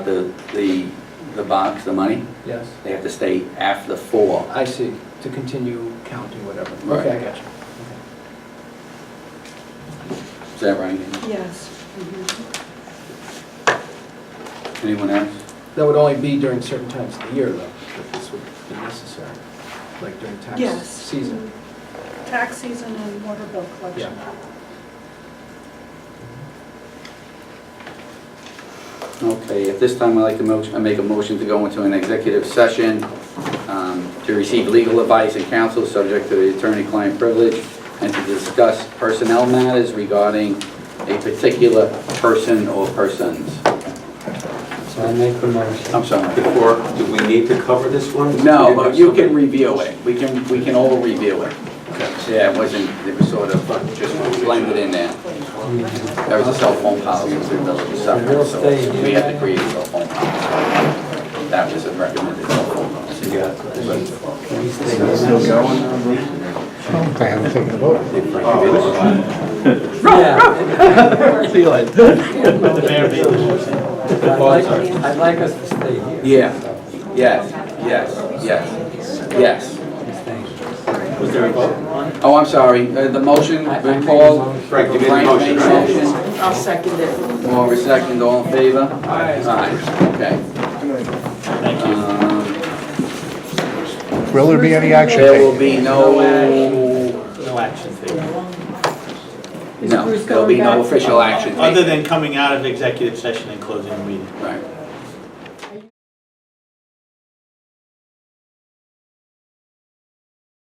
The, the, the box, the money, Yes, they have to stay after the four. I see, to continue counting whatever. Right. Okay, I got you. Is that right? Andy? Yes. Anyone else? That would only be during certain times of the year, though, that this would be necessary, like during tax Yes. season. Tax season and water bill collection. Okay, at this time, I'd like to motion, I make a motion to go into an executive session um, to receive legal advice and counsel subject to the attorney-client privilege and to discuss personnel matters regarding a particular person or persons. So I make the motion. I'm sorry. Or do we need to cover this one? No, but you can review it. We can, we can all review it. Yeah, it wasn't, it was sort of uh, just blended in there. There was a cell phone policy in the village of Suffolk, so we had to create a cell phone policy. That was a recommended cell phone policy. Okay, I'm taking a vote. Oh, I'd like, I'd like us to stay here. Yeah, yes, yes, yes, yes. Was there a vote? Oh, I'm sorry, Uh, the motion, I- I made the Paul? motion. Frank, you made the motion, right? Frank made the motion. I'll second it. Moore, second, all in favor? Aye. okay. Thank you. Will there be any action There taken? will be no... No action taken. Is No, Bruce there'll be going no back? official action Other taken. than coming out of executive session and closing the meeting. Right.